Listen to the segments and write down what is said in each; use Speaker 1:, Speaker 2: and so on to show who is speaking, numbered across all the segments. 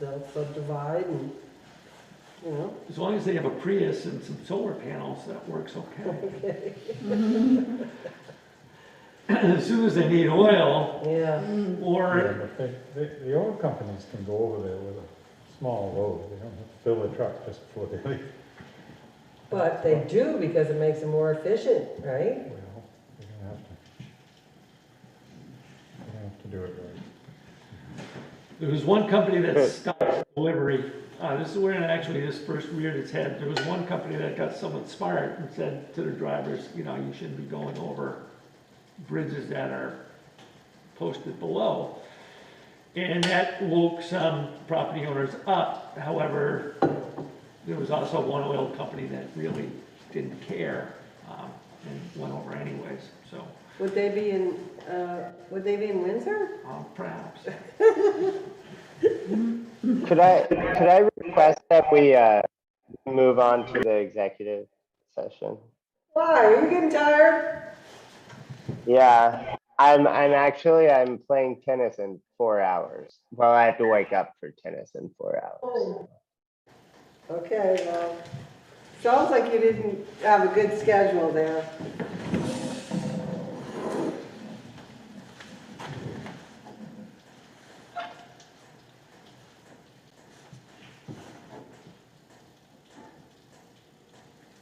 Speaker 1: they'll subdivide and, you know,
Speaker 2: As long as they have a Prius and some solar panels, that works okay. As soon as they need oil,
Speaker 1: yeah,
Speaker 3: Yeah,
Speaker 2: or,
Speaker 3: but they- The, the oil companies can go over there with a small load, they don't have to fill the truck just before they leave.
Speaker 1: but they do because it makes them more efficient, right?
Speaker 3: Well, they're gonna have to. They're gonna have to do it right.
Speaker 2: there was one company that stopped delivery. Uh, this is where, actually, this first reared its head. There was one company that got somewhat smart and said to their drivers, you know, you shouldn't be going over bridges that are posted below. And that woke some property owners up. However, there was also one oil company that really didn't care um, and went over anyways, so
Speaker 1: Would they be in, uh, would they be in Windsor?
Speaker 2: um, perhaps.
Speaker 4: Could I, could I request that we, uh, move on to the executive session?
Speaker 1: Why, are you getting tired?
Speaker 4: Yeah, I'm, I'm actually, I'm playing tennis in four hours. Well, I have to wake up for tennis in four hours.
Speaker 1: Oh. Okay, well, sounds like you didn't have a good schedule there.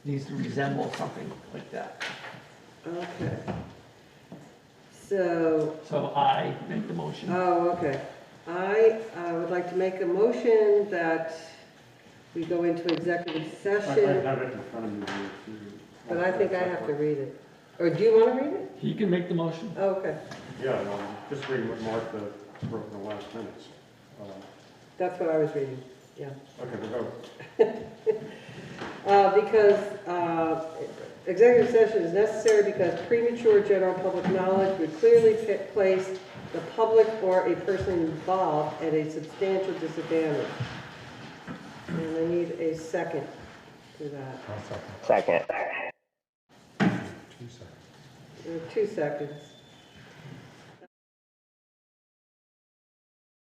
Speaker 2: Needs to resemble something like that.
Speaker 1: Okay. So,
Speaker 2: So I make the motion.
Speaker 1: oh, okay. I, I would like to make a motion that we go into executive
Speaker 5: I I
Speaker 1: session,
Speaker 5: have it in front of me. here, if you-
Speaker 1: but I think I have to read it. Or do you want to read it?
Speaker 2: He can make the motion.
Speaker 1: Okay,
Speaker 5: Yeah, well, just read what Martha wrote in the last minutes. Uh,
Speaker 1: that's what I was reading, yeah.
Speaker 5: Okay, we go.
Speaker 1: Uh, Because uh, executive session is necessary because premature general public knowledge would clearly pa- place the public or a person involved at a substantial disadvantage. And I need a second to that,
Speaker 3: One second,
Speaker 4: Second.
Speaker 3: two seconds.
Speaker 1: There are two seconds.